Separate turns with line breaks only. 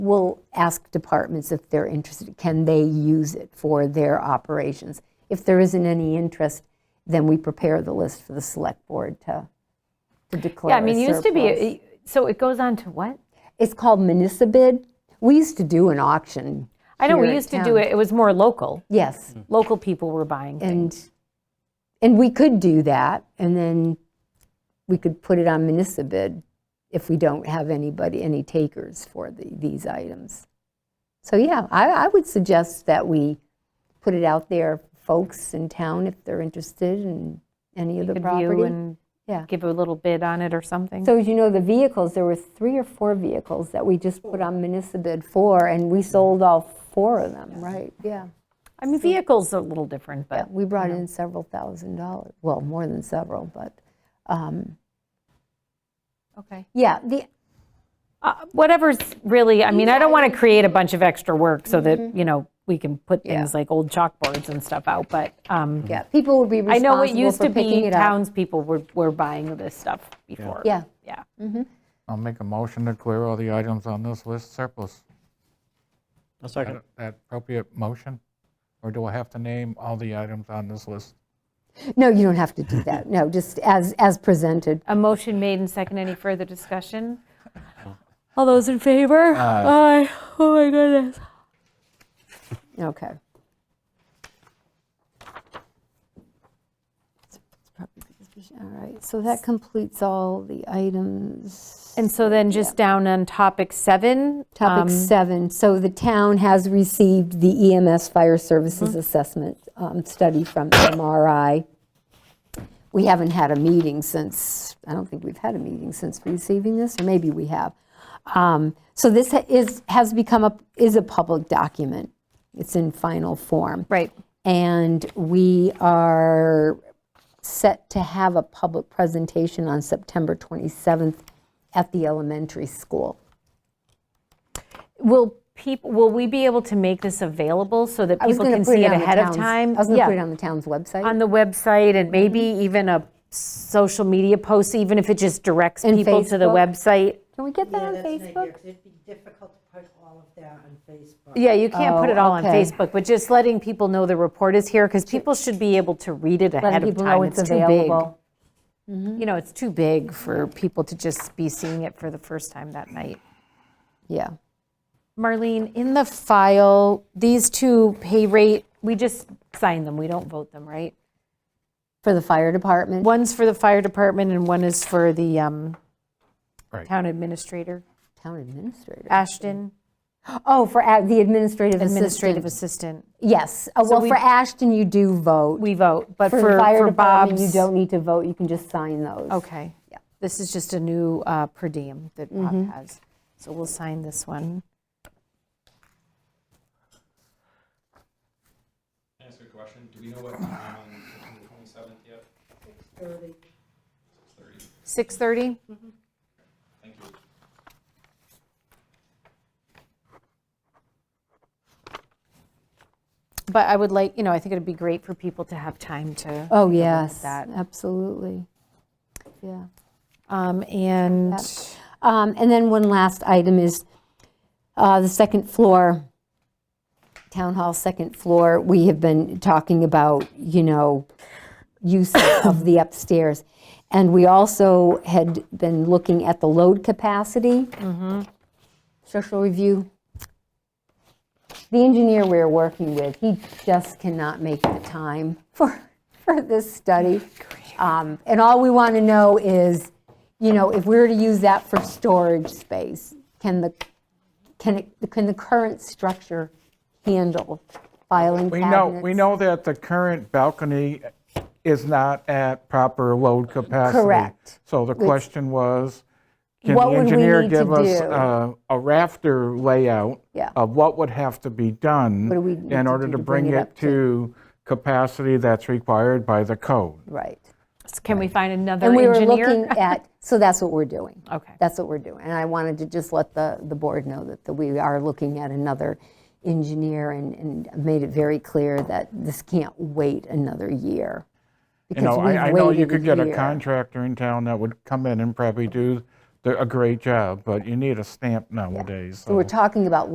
we'll ask departments if they're interested, can they use it for their operations? If there isn't any interest, then we prepare the list for the select board to to declare
Yeah, I mean,
a
it used to be,
surplus.
it- so it goes on to what?
It's called municipal. We used to do an auction.
I know,
here
we
at
used to
town.
do it, it was more local.
Yes,
Local people were buying
and,
things.
and we could do that, and then we could put it on municipal bid if we don't have anybody, any takers for the, these items. So, yeah, I, I would suggest that we put it out there, folks in town, if they're interested in any of the
Could view
property.
and
Yeah.
give a little bid on it or something.
So as you know, the vehicles, there were three or four vehicles that we just put on municipal bid for, and we sold all four of them, right? Yeah.
I mean, vehicles are a little different,
Yeah,
but
we brought in several thousand dollars, well, more than several, but, um,
okay.
yeah, the,
Uh, Whatever's really, I mean, I don't want to create a bunch of extra work so
Mm-hmm.
that, you know, we can put things like old chalkboards and stuff out, but um,
yeah, people would be
I know it
responsible
used
for
to
picking
be
it up.
townspeople were were buying this stuff before.
Yeah,
Yeah.
I'll make a motion to clear all the items on this list surplus.
I'll
Is
second.
That that appropriate motion? Or do I have to name all the items on this list?
no, you don't have to do that, no, just as, as presented.
A motion made and second. Any further discussion? All those in favor? Aye. Oh, my goodness.
Okay. All right, so that completes all the items.
And so then just down on topic seven. um,
Topic seven, so the town has received the EMS Fire Services Assessment um, Study from MRI. We haven't had a meeting since, I don't think we've had a meeting since receiving this, or maybe we have. Um, So this ha- is, has become a, is a public document. It's in final form.
Right.
And we are set to have a public presentation on September 27th at the elementary school.
Will people, will we be able to make this available so that
I was
people
gonna
can
put
see it
on the
ahead of
town's-
time?
I was going to
Yeah.
put it on the town's website.
on the Mm-hmm. website and maybe even a social media post, even if it just directs
And
people to the
Facebook.
website.
Can we get that on
Yeah, that's an idea,
Facebook?
'cause It'd be difficult to put all of that on Facebook.
Yeah, you can't put
Oh,
it all on
okay.
Facebook, but just letting people know the report is here because people should be able to read it ahead
Letting
of
people know
time.
it's
too big.
available.
You know, it's too big for people to just be seeing it for the first time that night.
Yeah.
Marlene, in the file, these two pay rate, we just sign them, we don't vote them, right?
For the fire department?
One's for the fire department and one is for the um,
Right.
town administrator,
Town administrator.
Ashton,
Oh, for a- the administrative
administrative
assistant.
assistant.
Yes. Uh, Well,
we-
for Ashton, you do vote.
We vote, but
For
for,
the fire
for
department, you
Bob's.
don't need to vote. You can just sign those.
Okay. This is just a new uh, per diem that Bob has. So we'll sign this one.
Can I ask a question? Do we know what time on September twenty-seventh yet?
6:30?
Thank you.
But I would like, you know, I think it'd be great for people to have time to.
Oh, yes,
that.
absolutely. Yeah.
um, And
Um, And then one last item is uh, the second floor, town hall second floor. We have been talking about, you know, use of the upstairs. And we also had been looking at the load capacity. Social review. The engineer we're working with, he just cannot make the time for, for this study. Um, And all we want to know is, you know, if we were to use that for storage space, can the, can it, can the current structure handle filing
We
cabinets?
know, we know that the current balcony is not at proper load capacity.
Correct.
So the question was, can the
What would we
engineer
need to
give us
do?
uh, a rafter layout?
Yeah.
Of what would have to be done?
What do we need
In
to
order
do
to bring it
up to-
to capacity that's required by the code.
Right.
can we find another
And we were
engineer?
looking at, so that's what we're doing.
Okay.
That's what we're doing. And I wanted to just let the, the board know that that we are looking at another engineer and, and made it very clear that this can't wait another year.
You know,
because
I, I
we've
know you
waited
could get a
year.
contractor in town that would come in and probably do
a great job, but you need a stamp nowadays.
So we're
so-
talking about